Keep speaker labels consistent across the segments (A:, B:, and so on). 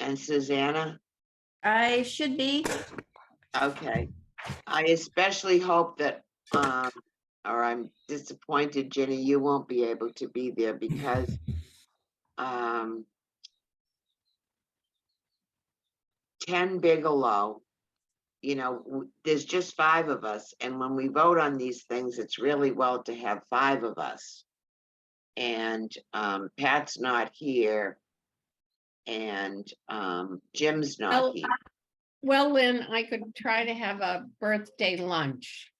A: and Susanna?
B: I should be.
A: Okay. I especially hope that, um, or I'm disappointed, Jenny, you won't be able to be there because, um, Ken Bigelow, you know, w- there's just five of us, and when we vote on these things, it's really well to have five of us. And, um, Pat's not here. And, um, Jim's
C: Well,
A: not here.
C: Well, Lynn, I could try to have a birthday lunch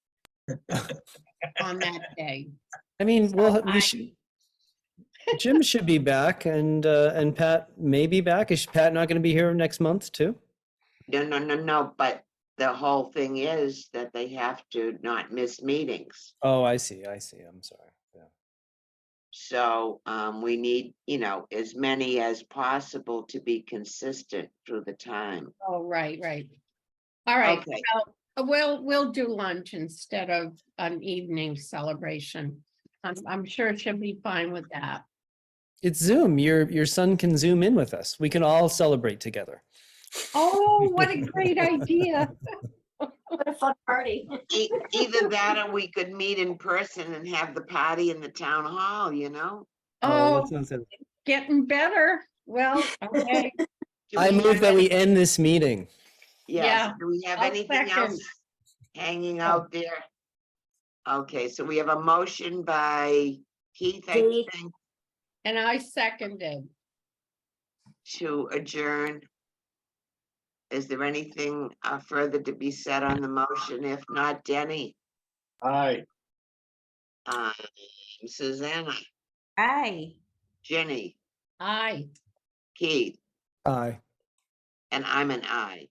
C: on that day.
D: I mean, well,
C: I-
D: we should. Jim should be back, and uh, and Pat may be back. Is Pat not going to be here next month too?
A: No, no, no, no, but the whole thing is that they have to not miss meetings.
D: Oh, I see. I see. I'm sorry. Yeah.
A: So um, we need, you know, as many as possible to be consistent through the time.
C: Oh, right, right. All right,
A: Okay,
C: uh, we'll, we'll do lunch instead of an evening celebration. I'm, I'm sure she'll be fine with that.
D: It's Zoom. Your your son can zoom in with us. We can all celebrate together.
C: Oh, what a great idea. Oh,
B: What a fun party.
A: E- either that or we could meet in person and have the party in the town hall, you know?
C: Oh,
D: that sounds good.
C: getting better. Well, okay.
A: Do
D: I
A: we
D: move
A: have
D: that we
A: any-
D: end this meeting.
A: Yes,
C: Yeah,
A: do we have
C: I'll
A: anything
C: second.
A: else hanging
D: Oh.
A: out there? Okay, so we have a motion by Keith, I
B: Keith.
A: think,
C: And I seconded.
A: to adjourn. Is there anything uh, further to be said on the motion? If not, Denny,
E: Aye.
A: um, Susanna,
B: Aye.
A: Jenny,
C: Aye.
A: Keith,
D: Aye.
A: and I'm an I.